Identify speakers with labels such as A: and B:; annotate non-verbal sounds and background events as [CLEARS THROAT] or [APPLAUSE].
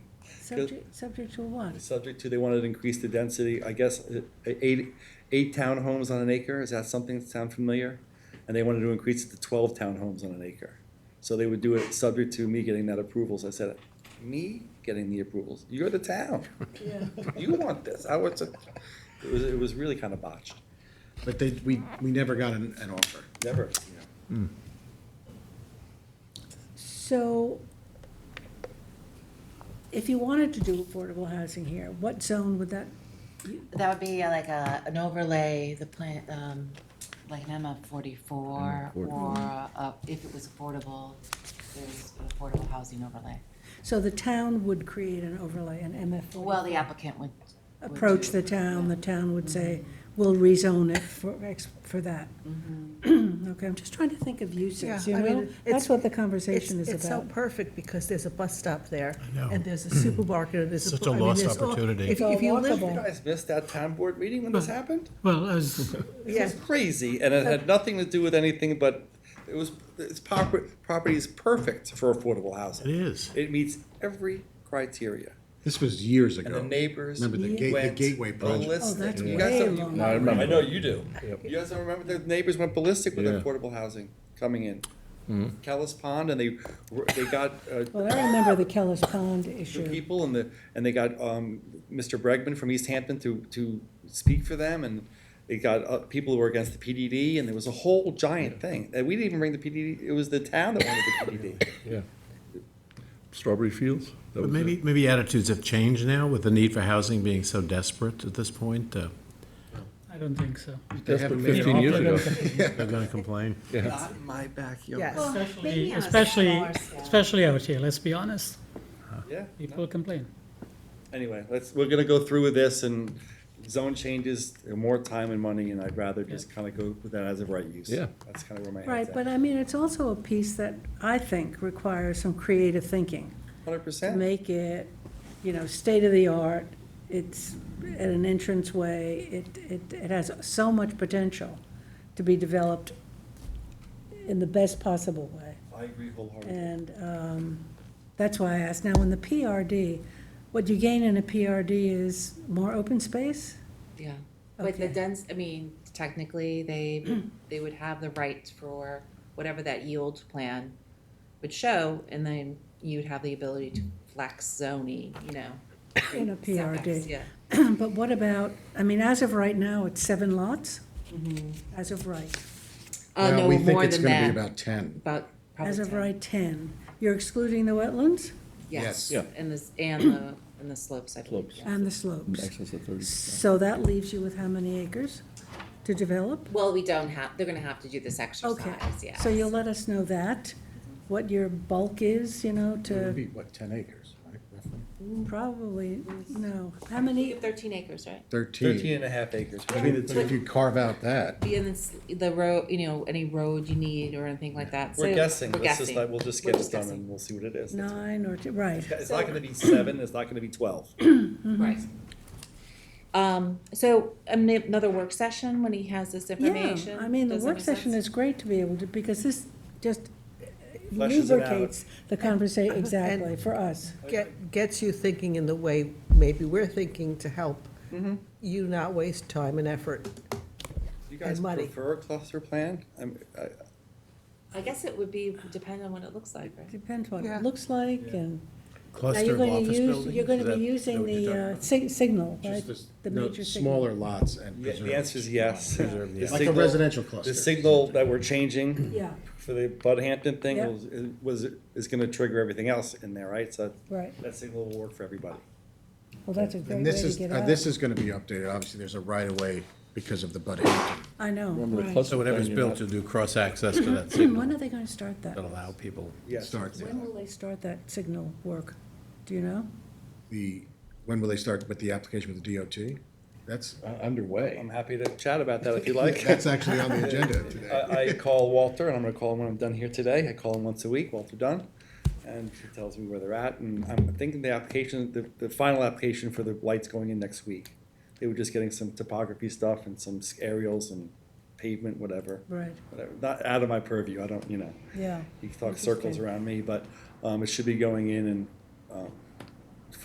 A: Subject, subject to what?
B: Subject to, they wanted to increase the density, I guess, uh, eight, eight townhomes on an acre, is that something that sound familiar? And they wanted to increase it to twelve townhomes on an acre. So they would do it subject to me getting that approvals, I said, me getting the approvals, you're the town,
A: Yeah.
B: you want this, I was, it was, it was really kind of botched,
C: But they, we, we never got an, an offer.
B: never.
A: So if you wanted to do affordable housing here, what zone would that,
D: That would be uh, like a, an overlay, the plant, um, like an MF forty-four, or, uh, if it was affordable, there's an affordable housing overlay.
A: so the town would create an overlay, an MF.
D: Well, the applicant would. would
A: Approach
D: do-
A: the town, the town would say, we'll rezone it for, X for that. [CLEARS THROAT] Okay, I'm just trying to think of uses,
E: Yeah,
A: you
E: I mean,
A: know?
E: it's-
A: That's what the
E: It's,
A: conversation
E: it's
A: is
E: so
A: about.
E: perfect because there's a bus stop there.
F: know.
E: And there's a supermarket, and there's a.
F: Such
E: bu-
F: a
E: I mean,
F: lost
E: there's all-
F: opportunity.
E: If,
A: It's all
E: if you live,
A: walkable.
B: You guys missed that town board meeting when this happened?
F: Well, [LAUGHS] as,
B: It
E: yeah,
B: was crazy, and it had nothing to do with anything, but it was, its proper- property is perfect for affordable housing.
F: it is.
B: It meets every criteria.
C: This was years ago.
B: And the neighbors.
C: Remember the gate- the
B: went
C: Gateway project.
B: ballistic.
A: Oh, that's
B: You guys
A: way
B: don't-
A: long.
G: No, I remember.
B: I know you do. You guys don't remember, the neighbors went ballistic with
G: Yeah.
B: affordable housing coming in.
C: Mm-hmm.
B: Kellis Pond, and they, were- they got, uh,
A: Well, I remember the Kellis Pond
B: the
A: issue.
B: people and the, and they got, um, Mr. Bregman from East Hampton to, to speak for them, and they got, uh, people who were against the PDD, and there was a whole giant thing. And we didn't even bring the PDD, it was the town that wanted the PDD.
C: [LAUGHS]
G: Yeah. Strawberry Fields? That
F: But
G: was
F: maybe,
G: it.
F: maybe attitudes have changed now with the need for housing being so desperate at this point. uh,
H: I don't think so.
C: They
G: That's
C: haven't
G: what,
C: made an
G: Fifteen years
C: offer.
G: ago.
F: They're going
A: [LAUGHS]
F: to complain.
G: Yeah.
B: Not in my backyard.
E: yes.
D: maybe
H: Especially,
D: on a smaller
H: especially,
D: scale.
H: especially out here, let's be honest,
B: Yeah.
H: people complain.
B: anyway, let's, we're gonna go through with this and zone changes, more time and money, and I'd rather just kinda go with that as a right use.
G: Yeah.
B: That's kinda where my head's
A: Right,
B: at.
A: but I mean, it's also a piece that I think requires some creative thinking.
B: Hundred
A: to
B: percent,
A: make it, you know, state of the art. It's at an entrance way. It, it, it has so much potential to be developed in the best possible way.
B: I agree wholeheartedly.
A: And um, that's why I asked. Now, in the PRD, what you gain in a PRD is more open space?
D: Yeah, but the
A: Okay.
D: dens, I mean, technically, [CLEARS THROAT] they, they would have the right for whatever that yield plan would show, and then you'd have the ability to flex zoning, you know.
A: In a
D: setbacks,
A: PRD.
D: Yeah.
A: [CLEARS THROAT] But what about, I mean, as of right now, it's seven lots?
D: Mm-hmm.
A: As of right.
D: Uh,
C: Well,
D: no,
C: we think
D: more
C: it's
D: than
C: gonna be
D: that,
C: about ten.
D: about probably
A: As of
D: 10.
A: right, 10. You're excluding the wetlands
D: Yes,
C: Yes.
D: and the, and the, and the slopes, I believe.
G: Slopes.
D: yeah.
A: and the slopes.
G: Excess of thirty.
A: So that leaves you with how many acres to develop?
D: Well, we don't have, they're gonna have to do this
A: Okay,
D: exercise, yes.
A: so you'll let us know that, what your bulk is, you know,
C: It would
A: to
C: be, what, ten acres, right, roughly?
A: probably, no, how many?
D: Thirteen acres, right?
B: Thirteen
C: Thirteen.
B: and a half acres.
C: I mean, But if you carve out that,
D: Be in this, the road, you know, any road you need or anything like that, so.
B: We're guessing,
D: we're
B: let's just,
D: guessing.
B: not- we'll just
D: We're
B: get it done
D: guessing.
B: and we'll see what it is. That's-
A: Nine or, two right,
B: It's not gonna be seven, it's not gonna be twelve.
A: Mm-hmm.
D: Right. Um, so um, another work session when he has this
A: yeah,
D: information?
A: I mean, the
D: Does that
A: work
D: make
A: session
D: sense?
A: is great to be able to, because this just
B: Fleshes it out.
A: lubricates the conversation, exactly, for us.
E: Get, gets you thinking in the way maybe we're thinking to help
A: Mm-hmm.
E: you not waste time and effort.
B: You guys
E: muddy.
B: prefer a cluster plan? I'm, I,
D: I guess it would be, depend on what it looks like, right?
A: Depends what
E: Yeah.
A: it looks like and. Now,
F: Cluster
A: you're
F: of
A: going to
F: office
A: use,
F: buildings,
A: you're going
F: is
A: to
F: that-
A: be
F: is that
A: using
F: what you're
A: the
F: talking
A: uh,
F: about?
A: sig- signal, right?
C: just this,
A: The
C: no,
A: major signal.
C: smaller lots and
B: the, the
C: preserve.
B: answer is yes.
F: Preserve,
B: The
F: yeah.
C: Like a
B: signal-
C: residential
B: The
C: cluster.
B: signal that we're changing.
A: Yeah.
B: For the Bud Hampton thing
A: Yeah.
B: was, was, is gonna trigger everything else in there, right? So
A: Right,
B: that signal will work for everybody.
A: well, that's a great
C: And
A: way
C: this
A: to
C: is,
A: get
C: uh,
A: out.
C: this is gonna be updated, obviously, there's a right of way because of the Bud Hampton.
A: I know,
G: Remember the
A: right.
G: cluster
F: So
G: plan,
F: whatever's
G: you're
F: built
G: not-
F: to do cross-access to that
A: When
F: signal
A: are they going to start that?
F: that allow people.
B: Yes.
C: Start there.
A: When will they start that signal work? Do you know?
C: the, when will they start with the application with the DOT? That's
G: Uh, Underway.
B: I'm happy to chat about that if you
C: [LAUGHS]
B: like.
C: That's actually on the agenda today.
B: [LAUGHS] I, I call Walter, and I'm gonna call him when I'm done here today. I call him once a week, Walter Dunn, and he tells me where they're at, and I'm thinking the application, the, the final application for the lights going in next week. They were just getting some topography stuff and some aerials and pavement, whatever,
A: Right,
B: whatever, not out of my purview, I don't, you know.
A: yeah.
B: He talks circles around me, but, um, it should be going in and, um,